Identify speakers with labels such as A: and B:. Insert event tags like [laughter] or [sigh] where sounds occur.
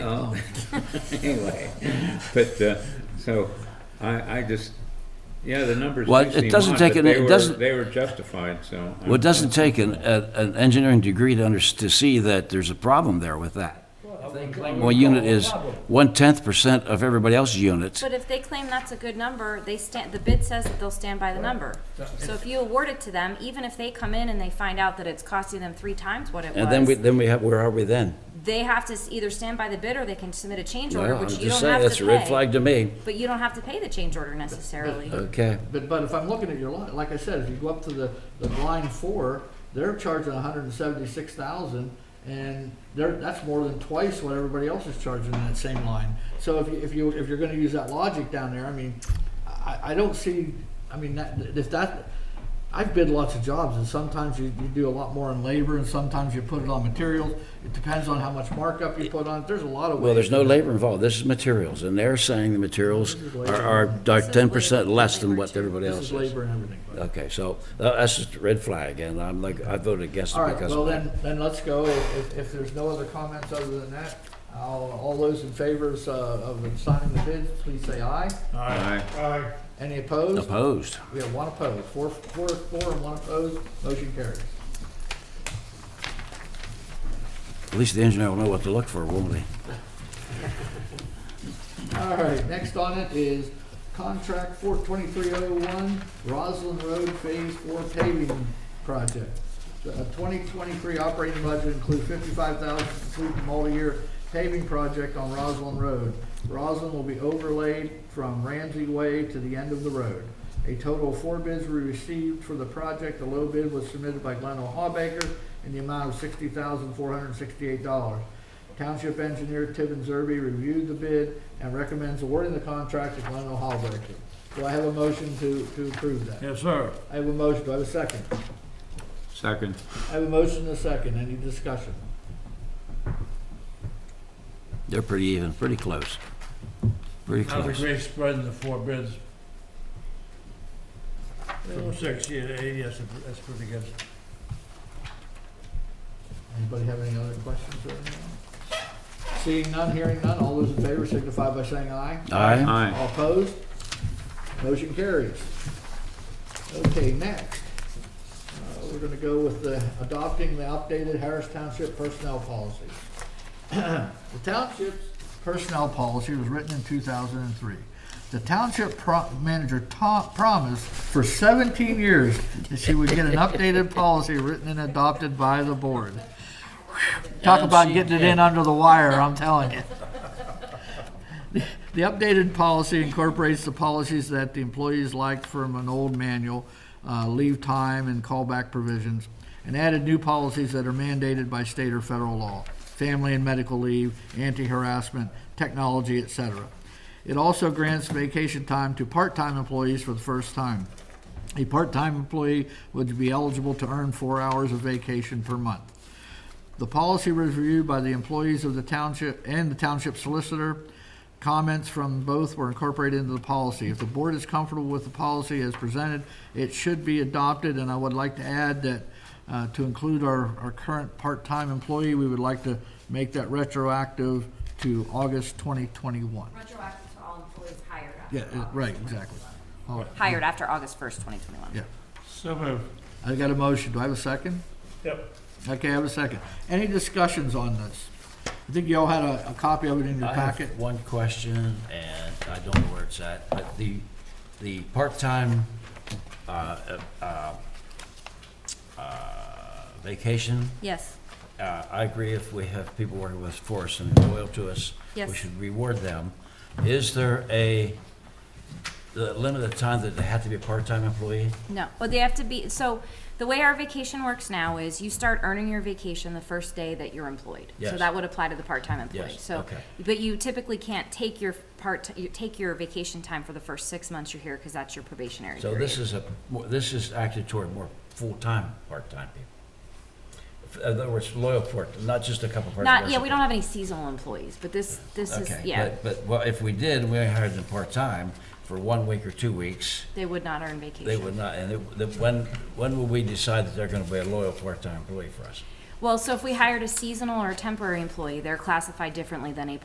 A: Oh, [laughs] anyway, but, uh, so, I, I just, yeah, the numbers
B: Well,
A: do
B: it
A: seem
B: doesn't
A: odd,
B: take
A: but
B: an-
A: they
B: it
A: were-
B: doesn't-
A: They were justified, so.
B: Well, it doesn't take an, a- an engineering degree to under, to see that there's a problem there with that. One unit is one-tenth percent of everybody else's units.
C: But if they claim that's a good number, they stand, the bid says that they'll stand by the number. So if you award it to them, even if they come in and they find out that it's costing them three times what it
B: And then we,
C: was,
B: then we have, where are we then?
C: they have to s- either stand by the bid or they can submit a change order,
B: Well, I'm
C: which you
B: just
C: don't
B: saying,
C: have
B: that's
C: to
B: a red
C: pay.
B: flag to me.
C: But you don't have to pay the change order necessarily.
D: Uh,
B: Okay.
D: But, but if I'm looking at your line, like I said, if you go up to the, the line four, they're charging hundred and seventy-six thousand, and they're, that's more than twice what everybody else is charging in that same line. So if you, if you, if you're gonna use that logic down there, I mean, I, I don't see, I mean, that, if that, I've bid lots of jobs, and sometimes you, you do a lot more in labor, and sometimes you put it on materials. It depends on how much markup you put on it, there's a lot of ways.
B: Well, there's no labor involved. This is materials, and they're saying the materials are, are ten percent less than what everybody
D: This
B: else
D: is
B: is.
D: labor and everything. but-
B: Okay, so uh, that's just a red flag, and I'm like, I voted against
D: All
B: it
D: right,
B: because of
D: well
B: that.
D: then, then let's go. If, if- if there's no other comments other than that, I'll, all those in favors uh, of signing the bid, please say aye.
A: Aye.
D: Any opposed?
B: Opposed.
D: We have one opposed. Four, four, four and one opposed. Motion carries.
B: At least the engineer will know what to look for, won't he?
D: All right, next on it is contract four twenty-three oh one, Roslyn Road Phase Four paving project. The twenty twenty-three operating budget includes fifty-five thousand to complete the multi-year paving project on Roslyn Road. Roslyn will be overlaid from Ramsey Way to the end of the road. A total of four bids were received for the project. The low bid was submitted by Glenn O'Hawbaker in the amount of sixty thousand, four hundred and sixty-eight dollars. Township engineer Tibbin Zerby reviewed the bid and recommends awarding the contract to Glenn O'Halberger. Do I have a motion to, to approve that?
E: Yes, sir.
D: I have a motion, do I have a second?
A: Second.
D: I have a motion and a second, any discussion?
B: They're pretty even, pretty close. Pretty
E: Not a
B: close.
E: great spread in the four bids. From sixty to eighty, that's, that's pretty good.
D: Anybody have any other questions or anything? Seeing none, hearing none, all those in favor signify by saying aye.
B: Aye.
A: Aye.
D: All opposed? Motion carries. Okay, next, uh, we're gonna go with the adopting the updated Harris Township personnel policy. [clears throat] The township's personnel policy was written in two thousand and three. The township pro- manager to- promised for seventeen years that she would get an updated policy written and adopted by the board. Talk about getting it in under the wire, I'm telling you. The updated policy incorporates the policies that the employees liked from an old manual, uh, leave time and callback provisions, and added new policies that are mandated by state or federal law, family and medical leave, anti-harassment, technology, et cetera. It also grants vacation time to part-time employees for the first time. A part-time employee would be eligible to earn four hours of vacation per month. The policy was reviewed by the employees of the township and the township solicitor. Comments from both were incorporated into the policy. If the board is comfortable with the policy as presented, it should be adopted, and I would like to add that uh, to include our, our current part-time employee, we would like to make that retroactive to August 2021.
C: Retroactive to all employees hired after.
D: Yeah, uh, right, exactly. All right,
C: Hired after August first, twenty twenty-one.
D: yeah.
E: So moved.
D: I got a motion. Do I have a second?
E: Yep.
D: Okay, I have a second. Any discussions on this? I think you all had a, a copy of it in your
B: I have
D: packet.
B: one question, and I don't know where it's at, but the, the part-time, uh, uh, uh, vacation,
C: Yes,
B: uh, I agree if we have people working with for us and loyal to us. We
C: Yes.
B: should reward them. Is there a, the limit of time that they have to be a part-time employee?
C: no, well, they have to be, so the way our vacation works now is you start earning your vacation the first day that you're employed. So
B: Yes.
C: that would apply to the part-time employee.
B: Yes,
C: So,
B: okay.
C: but you typically can't take your part, you take your vacation time for the first six months you're here because that's your probationary
B: So
C: period.
B: this is a, more- this is acted toward more full-time, part-time people. In other words, loyal part, not just a couple part-time.
C: Not, yeah, we don't have any seasonal employees, but this, this is, yeah,
B: Okay, but, but, well, if we did, we hired them part-time for one week or two weeks,
C: they would not earn vacation.
B: they would not, and it- the, when, when will we decide that they're gonna be a loyal part-time employee for us?
C: Well, so if we hired a seasonal or a temporary employee, they're classified differently than a